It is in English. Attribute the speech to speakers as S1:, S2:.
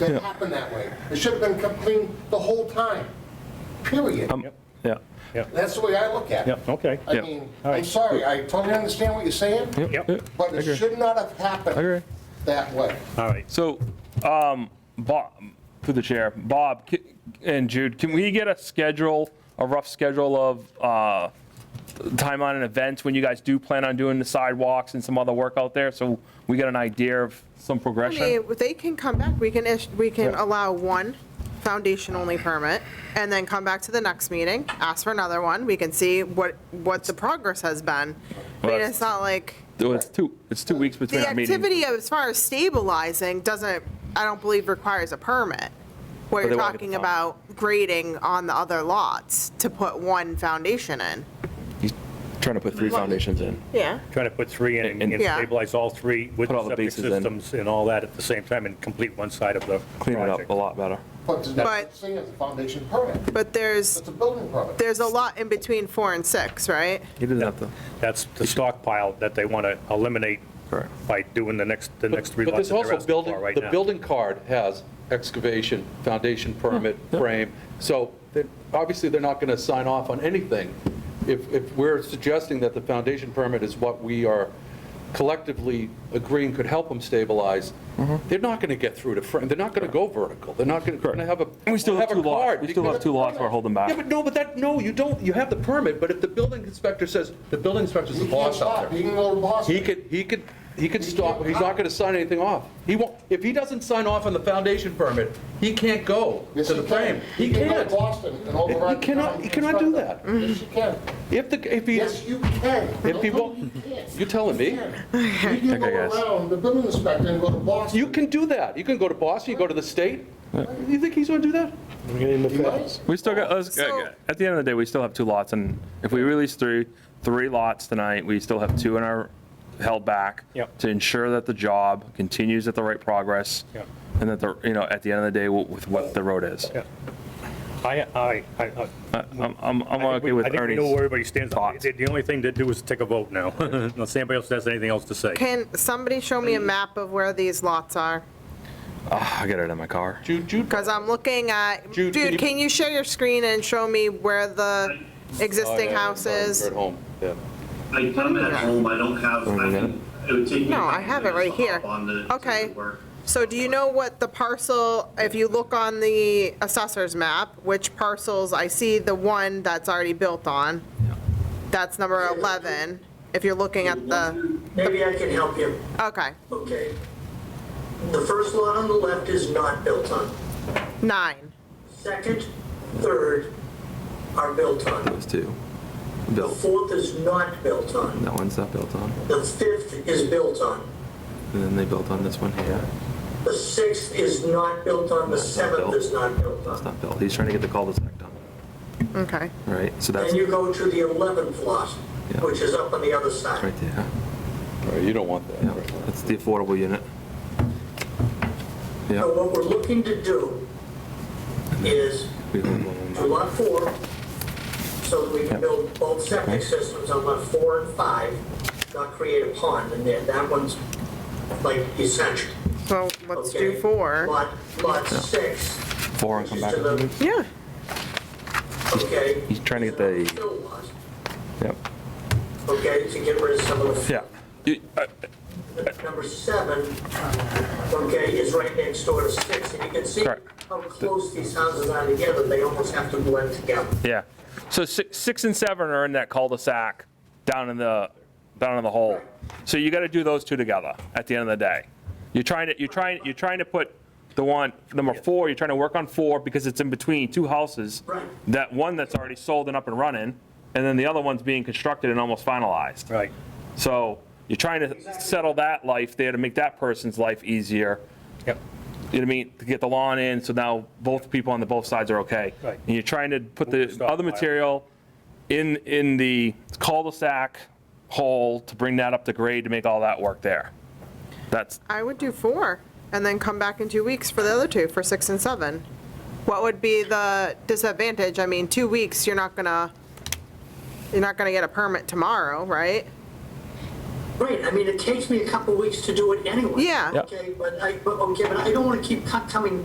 S1: Yeah.
S2: that happened that way. It should have been kept clean the whole time, period.
S1: Yeah.
S2: That's the way I look at it.
S3: Yep, okay.
S2: I
S1: Yeah.
S2: mean, I'm
S3: All right.
S2: sorry, I totally understand what you're saying,
S3: Yep.
S1: Yeah.
S2: but it
S1: Agree.
S2: should not have happened
S1: Agree.
S2: that way.
S3: All right.
S1: So, um, Bob, through the chair, Bob ca- and Jude, can we get a schedule, a rough schedule of uh, timeline and events when you guys do plan on doing the sidewalks and some other work out there? So we get an idea of some
S4: I mean,
S1: progression?
S4: They can come back, we can, ish- we can
S1: Yeah.
S4: allow one foundation-only permit, and then come back to the next meeting, ask for another one, we can see what, what the progress has been. I mean,
S1: Well,
S4: it's not like,
S1: Though It's two, it's two weeks between
S4: the
S1: our meetings.
S4: activity as far as stabilizing doesn't, I don't believe requires a permit. What
S1: they won't get
S4: you're
S1: the
S4: talking
S1: permit.
S4: about grading on the other lots to put one foundation in.
S5: He's trying to put three foundations in.
S4: Yeah.
S3: Trying to put three in and
S1: And-
S3: and
S4: Yeah.
S3: stabilize all three with
S5: Put all the
S3: septic
S5: bases in.
S3: systems and all that at the same time and complete one side of the
S5: Clean it up
S3: project.
S5: a lot better.
S2: But the
S4: But-
S2: next thing is a foundation permit.
S4: But there's,
S2: It's a building permit.
S4: there's a lot in between four and six, right?
S5: He doesn't have to.
S3: That's the stockpile that they want to eliminate
S5: Correct.
S3: by doing the next, the next three
S6: But
S3: lots
S6: there's
S3: that they're
S6: also
S3: asking
S6: building,
S3: for right
S6: the
S3: now.
S6: building card has excavation, foundation permit, frame. So they're- obviously, they're not going to sign off on anything. If, if we're suggesting that the foundation permit is what we are collectively agreeing could help them stabilize, they're not going to get through to frame, they're not going to go vertical, they're not going to have a.
S1: And we still have
S6: a
S1: two lots,
S6: card
S1: we still have
S6: because-
S1: two lots we're holding back.
S6: Yeah, but no, but that, no, you don't, you have the permit, but if the building inspector says, the building inspector's the
S2: He can't
S6: boss out there.
S2: stop, he can go to Boston.
S6: He could, he could, he could
S2: He
S6: stop,
S2: can't
S6: he's
S2: hide.
S6: not gonna sign anything off. He won't, if he doesn't sign off on the foundation permit, he can't go to
S2: Yes,
S6: the
S2: he can.
S6: frame. He
S2: go to
S6: can't.
S2: Boston and override.
S6: He cannot- he cannot do that.
S2: Yes, you can.
S6: If the, if he,
S2: Yes, you can.
S6: If he
S2: Don't tell
S6: won't-
S2: me you can't.
S6: You're telling me?
S2: You can. You can go
S1: Okay, guys.
S2: around the building inspector and go to Boston.
S6: you can do that. You can go to Boston, you go to the state. You think he's gonna do that?
S2: You might.
S1: We still got, let's-
S4: So-
S1: at the end of the day, we still have two lots, and if we release three, three lots tonight, we still have two in our, held back.
S3: Yep.
S1: To ensure that the job continues at the right progress.
S3: Yep.
S1: And that the, you know, at the end of the day, w- with what the road is.
S3: Yeah. I, I, I- I.
S1: I'm, I'm I'm
S3: I think
S1: okay
S3: we-
S1: with
S3: I think we know where
S1: Ernie's.
S3: everybody stands.
S1: thoughts.
S3: The the only thing to do is take a vote now, unless anybody else has anything else to say.
S4: Can somebody show me a map of where these lots are?
S1: Ah, I got it in my car.
S6: Jude, Jude,
S4: Because I'm looking at,
S6: Jude, can
S4: dude,
S6: you-
S4: can you share your screen and show me where the
S6: Oh,
S4: existing house is?
S6: At home, yeah.
S7: I come at home, I don't have, I can, it would take me.
S4: No,
S7: a
S4: I
S7: couple
S4: have it right
S7: minutes to hop
S4: here.
S7: on the- to
S4: Okay.
S7: work.
S4: So do you know what the parcel, if you look on the assessor's map, which parcels, I see the one that's already built on. That's number 11, if you're looking at the,
S8: Maybe I can help you.
S4: okay,
S8: Okay. The first lot on the left is not built on.
S4: nine.
S8: Second, third are built on.
S5: Those two.
S8: The
S5: Built.
S8: fourth is not built on.
S5: That one's not built on.
S8: The fifth is built on.
S5: And then they built on this one here.
S8: The sixth is not built on. The seventh is not built
S5: It's
S8: on.
S5: not built. He's trying to get the cul-de-sac done,
S4: Okay,
S5: right? So that's
S8: Then you go to the 11th lot,
S5: Yeah.
S8: which is up on the other side.
S5: right there.
S6: All right, You don't want that.
S5: Yeah,
S6: right?
S5: that's the affordable unit.
S8: So
S5: Yeah.
S8: what we're looking to do is
S5: We hold one
S8: to lot four, so that we can build both septic systems on lot four and five, not create a pond in there. That one's like essential.
S4: so let's do
S8: okay?
S4: four.
S8: Lot, lot six,
S5: Four and
S8: which
S5: come
S8: is
S5: back.
S8: to the,
S4: Yeah,
S8: okay?
S5: He's trying to get
S8: is
S5: the-
S8: an unfilled lot,
S5: Yep.
S8: Okay, to get rid of some of the.
S1: Yeah. You- I-
S8: Number seven, okay, is right next door to six, and you can see
S1: Correct.
S8: how close these houses are together. They almost have to blend together.
S1: Yeah. So six, six and seven are in that cul-de-sac down in the, down in the hole. So you got to do those two together at the end of the day. You're trying to, you're trying, you're trying to put the one, number four, you're trying to work on four because it's in between two houses.
S8: Right.
S1: That one that's already sold and up and running, and then the other one's being constructed and almost finalized.
S3: Right.
S1: So you're trying to settle that life there to make that person's life easier.
S3: Yep.
S1: You know what I mean? To get the lawn in, so now both people on the both sides are okay.
S3: Right.
S1: And you're trying to put
S3: Move the
S1: the other
S3: stockpile.
S1: material in, in the cul-de-sac hole to bring that up to grade to make all that work there. That's,
S4: I would do four, and then come back in two weeks for the other two, for six and seven. What would be the disadvantage? I mean, two weeks, you're not gonna, you're not gonna get a permit tomorrow, right?
S8: Right, I mean, it takes me a couple weeks to do it anyway.
S4: Yeah.
S1: Yeah.
S8: Okay, but I, but, okay, but I don't wanna keep co- coming back